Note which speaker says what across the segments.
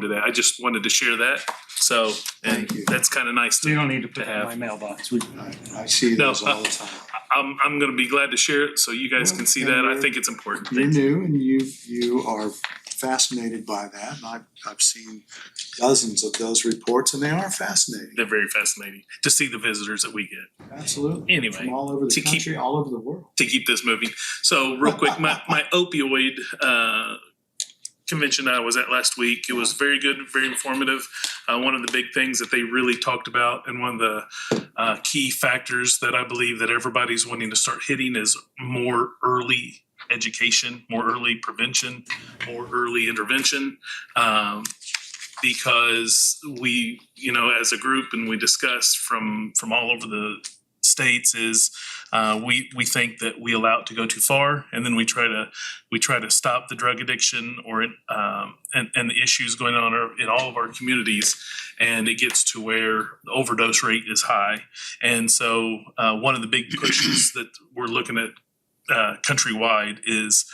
Speaker 1: to that. I just wanted to share that. So, and
Speaker 2: Thank you.
Speaker 1: that's kind of nice.
Speaker 3: You
Speaker 1: to-
Speaker 3: don't need to put that in
Speaker 1: have.
Speaker 3: my mailbox. We,
Speaker 2: I, I see
Speaker 1: No,
Speaker 2: those all the time.
Speaker 1: I'm, I'm going to be glad to share it so you guys can see that. I think it's important.
Speaker 2: You're new and you, you are fascinated by that. And I've, I've seen dozens of those reports and they are fascinating.
Speaker 1: They're very fascinating to see the visitors that we get.
Speaker 2: Absolutely.
Speaker 1: Anyway,
Speaker 2: From all over
Speaker 1: to
Speaker 2: the
Speaker 1: keep-
Speaker 2: country, all over the world.
Speaker 1: to keep this moving. So real quick, my, my opioid, uh, convention that I was at last week, it was very good, very informative. Uh, one of the big things that they really talked about and one of the, uh, key factors that I believe that everybody's wanting to start hitting is more early education, more early prevention, more early intervention. Um, because we, you know, as a group and we discussed from, from all over the states is, uh, we we think that we allow it to go too far, and then we try to we try to stop the drug addiction or um, and and the issues going on our- in all of our communities, and it gets to where the overdose rate is high, and so uh, one of the big pushes that we're looking at uh, countrywide is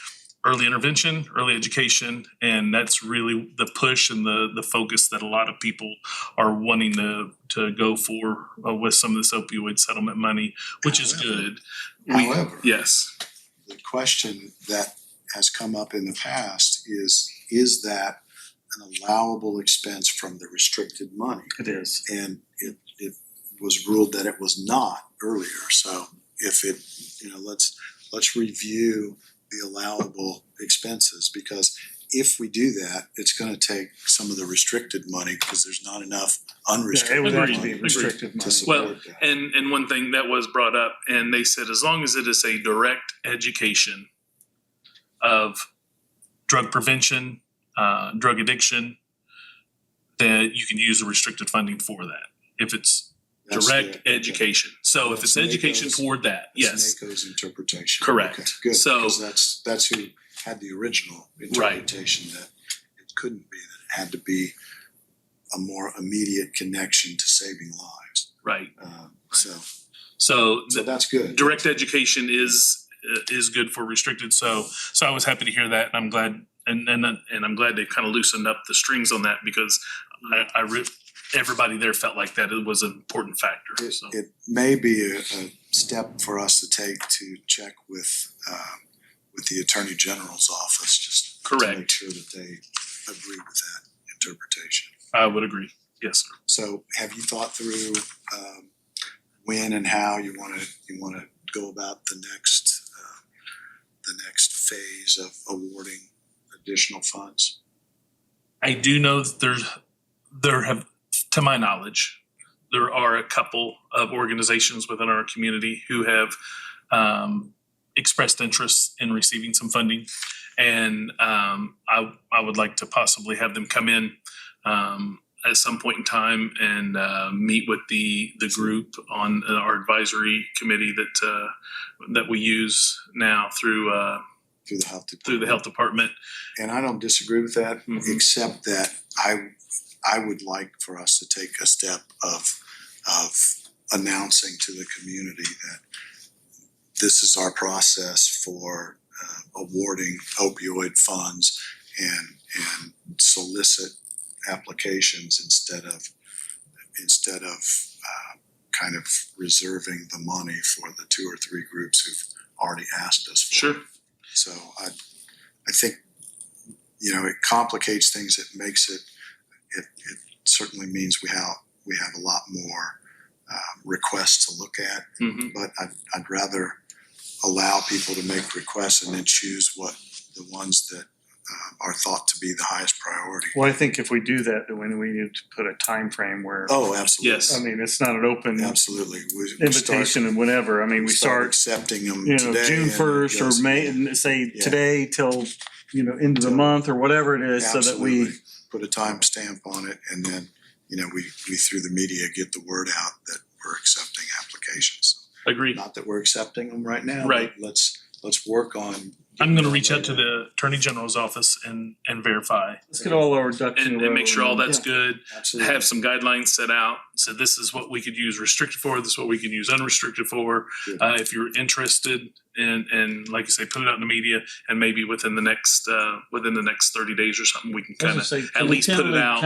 Speaker 1: early intervention, early education, and that's really the push and the the focus that a lot of people are wanting to to go for uh, with some of this opioid settlement money, which is
Speaker 2: However-
Speaker 1: good. We-
Speaker 2: However,
Speaker 1: Yes,
Speaker 2: the question that has come up in the past is, is that an allowable expense from the restricted money?
Speaker 3: it is.
Speaker 2: and it, it was ruled that it was not earlier, so if it, you know, let's, let's review the allowable expenses, because if we do that, it's gonna take some of the restricted money, because there's not enough
Speaker 3: Yeah, it
Speaker 2: unrestricted
Speaker 3: would
Speaker 2: money.
Speaker 3: have to be
Speaker 1: Agreed.
Speaker 3: restrictive
Speaker 2: To
Speaker 3: money.
Speaker 1: Well,
Speaker 2: support that.
Speaker 1: and and one thing that was brought up, and they said as long as it is a direct education of drug prevention, uh, drug addiction, that you can use the restricted funding for that if it's
Speaker 2: That's
Speaker 1: direct
Speaker 2: the-
Speaker 1: education. So if it's
Speaker 2: That's
Speaker 1: education
Speaker 2: NACO's-
Speaker 1: toward that, yes.
Speaker 2: That's NACO's interpretation.
Speaker 1: Correct.
Speaker 2: Okay, Good,
Speaker 1: So-
Speaker 2: because that's, that's who had the original
Speaker 1: Right.
Speaker 2: interpretation that it couldn't be, that it had to be a more immediate connection to saving lives.
Speaker 1: Right.
Speaker 2: Um, so,
Speaker 1: So
Speaker 2: so
Speaker 1: the
Speaker 2: that's good.
Speaker 1: direct education is uh, is good for restricted. So so I was happy to hear that, and I'm glad and and and I'm glad they've kind of loosened up the strings on that because I, I re- everybody there felt like that it was an important factor.
Speaker 2: It,
Speaker 1: So
Speaker 2: it may be a, a step for us to take to check with, um, with the Attorney General's office, just to make
Speaker 1: correct,
Speaker 2: sure that they agree with that interpretation.
Speaker 1: I would agree. Yes, sir.
Speaker 2: So have you thought through, um, when and how you wanna, you wanna go about the next, uh, the next phase of awarding additional funds?
Speaker 1: I do know that there's there have to my knowledge there are a couple of organizations within our community who have um, expressed interest in receiving some funding, and um, I I would like to possibly have them come in. Um, at some point in time, and uh, meet with the the group on uh, our advisory committee that uh, that we use now through uh,
Speaker 2: Through the health department?
Speaker 1: through the health department.
Speaker 2: And I don't disagree with that,
Speaker 1: Mhm.
Speaker 2: except that I, I would like for us to take a step of, of announcing to the community that this is our process for uh, awarding opioid funds and, and solicit applications instead of, instead of uh, kind of reserving the money for the two or three groups who've already asked us for it.
Speaker 1: Sure.
Speaker 2: So I, I think, you know, it complicates things, it makes it, it, it certainly means we have, we have a lot more, uh, requests to look at,
Speaker 1: hmm
Speaker 2: but I'd, I'd rather allow people to make requests and then choose what, the ones that, uh, are thought to be the highest priority.
Speaker 3: Well, I think if we do that, then we we need to put a time frame where,
Speaker 2: Oh, absolutely.
Speaker 1: Yes.
Speaker 3: I mean, it's not an open
Speaker 2: Absolutely. We- we start-
Speaker 3: Um, invitation and whatever. I mean, we start,
Speaker 2: Accepting them
Speaker 3: you know,
Speaker 2: today.
Speaker 3: June
Speaker 2: and it
Speaker 3: first or
Speaker 2: goes-
Speaker 3: May, and say
Speaker 2: Yeah.
Speaker 3: today till, you know, end of the
Speaker 2: Till-
Speaker 3: month or whatever it is, so that we,
Speaker 2: Absolutely. Put a timestamp on it and then, you know, we, we through the media get the word out that we're accepting applications.
Speaker 1: Agree.
Speaker 2: Not that we're accepting them right now. but
Speaker 1: Right.
Speaker 2: Let's, let's work on
Speaker 1: I'm gonna reach out to the Attorney General's office and, and verify
Speaker 3: Let's get all our ducks in a
Speaker 1: and, and make
Speaker 3: row
Speaker 1: sure all that's
Speaker 2: Yeah.
Speaker 1: good.
Speaker 2: Absolutely.
Speaker 1: Have some guidelines set out. So this is what we could use restricted for, this is what we can use unrestricted for.
Speaker 2: Yeah.
Speaker 1: Uh, if you're interested and, and like you say, put it out in the media and maybe within the next, uh, within the next thirty days or something, we can
Speaker 3: I was
Speaker 1: kind
Speaker 3: gonna
Speaker 1: of
Speaker 3: say,
Speaker 1: at
Speaker 3: can we
Speaker 1: least put it
Speaker 3: tentatively
Speaker 1: out.